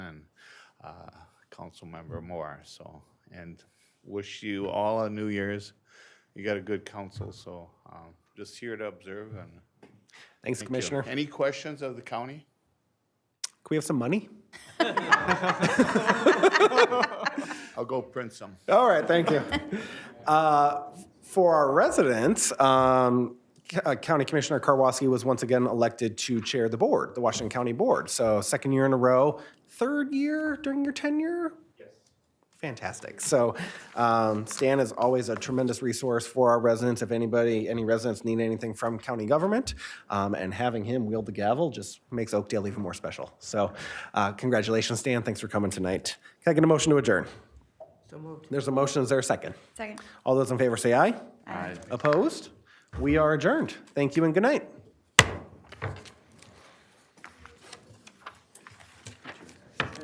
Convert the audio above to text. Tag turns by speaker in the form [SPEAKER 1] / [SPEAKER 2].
[SPEAKER 1] uh, Councilmember Moore, so, and wish you all a New Year's. You got a good council, so um, just here to observe and.
[SPEAKER 2] Thanks,
[SPEAKER 1] Thank you.
[SPEAKER 2] Commissioner. Can
[SPEAKER 1] Any questions of the county?
[SPEAKER 2] we have some money?
[SPEAKER 1] I'll go print some.
[SPEAKER 2] All right, thank you. Uh, For our residents, um, C- uh, County Commissioner Karwoski was once again elected to chair the board, the Washington County Board. So second year in a row, third year during your tenure? Yes. Fantastic. So um, Stan is always a tremendous resource for our residents. If anybody, any residents need anything from county government, um, and having him wield the gavel just makes Oakdale even more special. So uh, congratulations, Stan. Thanks for coming tonight. Can I get a motion to adjourn? There's a motion, is there a second?
[SPEAKER 3] Second.
[SPEAKER 2] All those in favor say aye. Aye. Opposed? We are adjourned. Thank you and good night.